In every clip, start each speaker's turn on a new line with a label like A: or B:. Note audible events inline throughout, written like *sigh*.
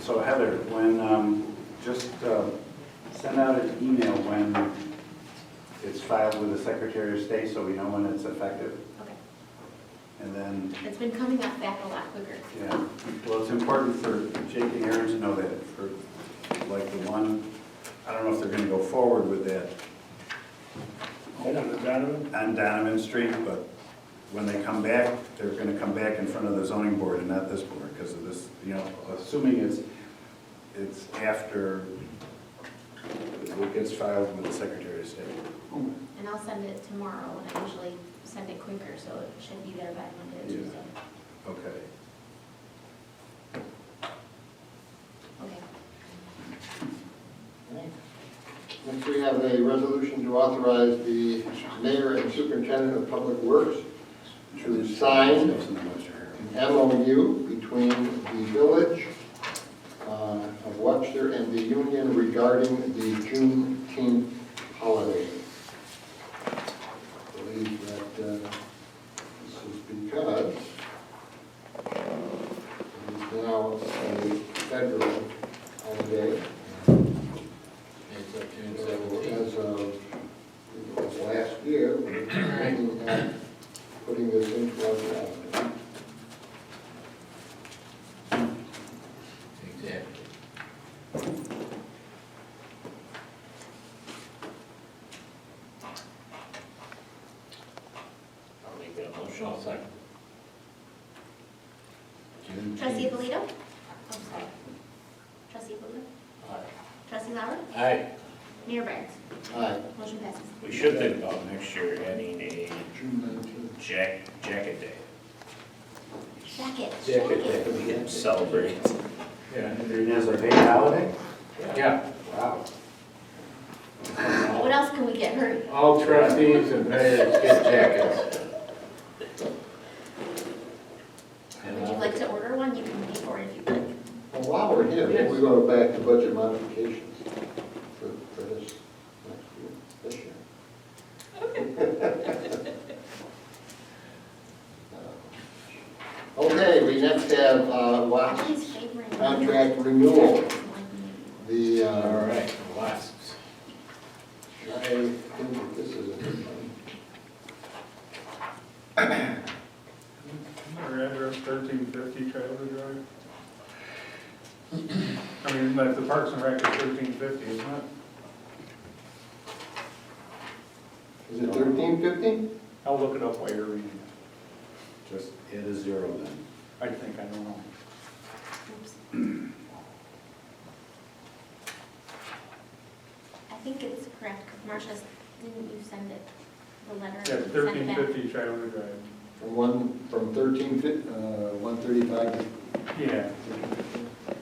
A: So Heather, when, um, just uh, send out an email when it's filed with the Secretary of State, so we know when it's effective.
B: Okay.
A: And then,
B: It's been coming up back a lot quicker.
A: yeah, well, it's important for Jake and Aaron to know that, for like the one, I don't know if they're gonna go forward with that
C: Hold on, Donovan.
A: on Donovan Street, but when they come back, they're gonna come back in front of the zoning board and not this board, because of this, you know, assuming it's, it's after it gets filed with the Secretary of State.
B: And I'll send it tomorrow, and I usually send it quicker, so it should be there by Monday or
A: Yeah.
B: Tuesday.
A: Okay.
B: Okay.
D: Next, we have a resolution to authorize the mayor and superintendent of public works to sign an MOU between the village uh, of Webster and the union regarding the Juneteenth holiday. I believe that uh, this is because it is now a federal holiday. So As of as of last year, we're looking at putting this into our calendar.
E: Exactly. I'll make that motion, I'll second. June
B: Trustee
E: tenth.
B: Polito? I'm sorry. Trustee Polito?
E: Aye.
B: Trustee Lauer?
E: Aye,
B: Mayor Barnes?
D: Aye.
B: Motion passes.
E: we should think about next year adding a
D: June nineteenth.
E: jack, jacket day.
B: Jacket,
E: Jacket
B: jacket.
E: we can celebrate.
C: Yeah.
A: And then there's a paid holiday?
C: Yeah,
A: Wow.
B: What else can we get her?
C: all trustees and mayors get jackets.
B: Would you like to order one? You can pay for it if you'd like.
D: Well, while we're here, we go back to budget modifications for, for this, next year, this year. Okay, we next have uh, Watts
B: Please favor and-
D: contract renewal. The,
E: All
D: uh,
E: right, last.
D: I think this is a good one.
F: Our address thirteen fifty Travelers Drive. I mean, like the Parks and Rec is thirteen fifty, isn't it?
D: Is it thirteen fifteen?
F: I'll look it up while you're reading.
A: Just add a zero then.
F: I think I don't know.
B: Oops. I think it's correct, because Marcia, didn't you send it, the letter?
F: Yeah,
B: Send it
F: thirteen
B: back.
F: fifty Travelers Drive.
D: From one, from thirteen fif, uh, one thirty-five to
F: Yeah.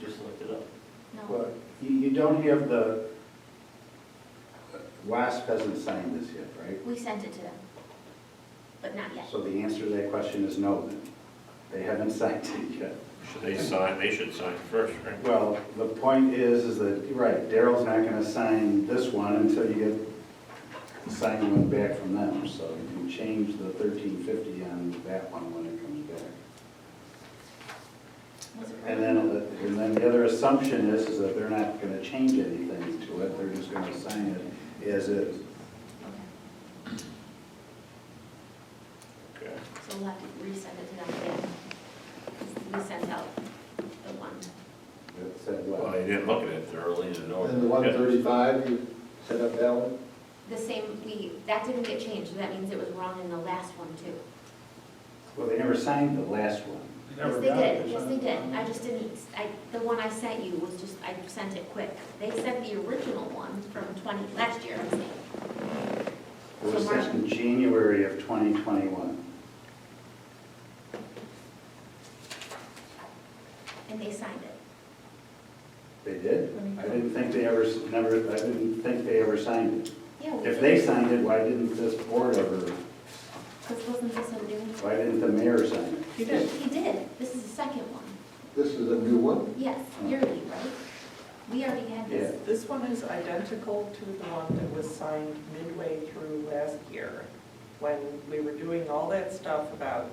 E: Just looked it up.
B: No,
A: Well, you, you don't have the, WASP hasn't signed this yet, right?
B: we sent it to them, but not yet.
A: So the answer to that question is no then. They haven't *laughs* signed it yet.
E: Should they sign, they should sign first, right?
A: Well, the point is, is that, you're right, Daryl's not gonna sign this one until you get the signed one back from them, so you can change the thirteen fifty on that one when it comes back.
B: Was it
A: And
B: right?
A: then, and then the other assumption is, is that they're not gonna change anything to it, they're just gonna sign it as is.
B: Okay,
E: Okay.
B: so we'll have to resend it to them again, 'cause we sent out the one.
A: That said,
E: Well,
A: well,
E: they didn't look at it thoroughly to know.
D: And the one thirty-five, you set up that one?
B: The same, we, that didn't get changed, that means it was wrong in the last one too.
A: well, they never signed the last one.
F: You
B: Yes,
F: never
B: they
F: got it,
B: did,
F: is
B: yes,
F: that-
B: they did, I just didn't, I, the one I sent you was just, I sent it quick. They sent the original one from twenty, last year, I'm saying.
A: It was sent in January of twenty twenty-one.
B: and they signed it.
A: They did? I didn't think they ever, s- never, I didn't think they ever signed it.
B: Yeah, we
A: If
B: did.
A: they signed it, why didn't this board ever,
B: Because wasn't this a new?
A: why didn't the mayor sign it?
B: He did. He did, this is the second one,
D: This is a new one?
B: yes, yearly, right? We already had this.
G: This one is identical to the one that was signed midway through last year, when we were doing all that stuff about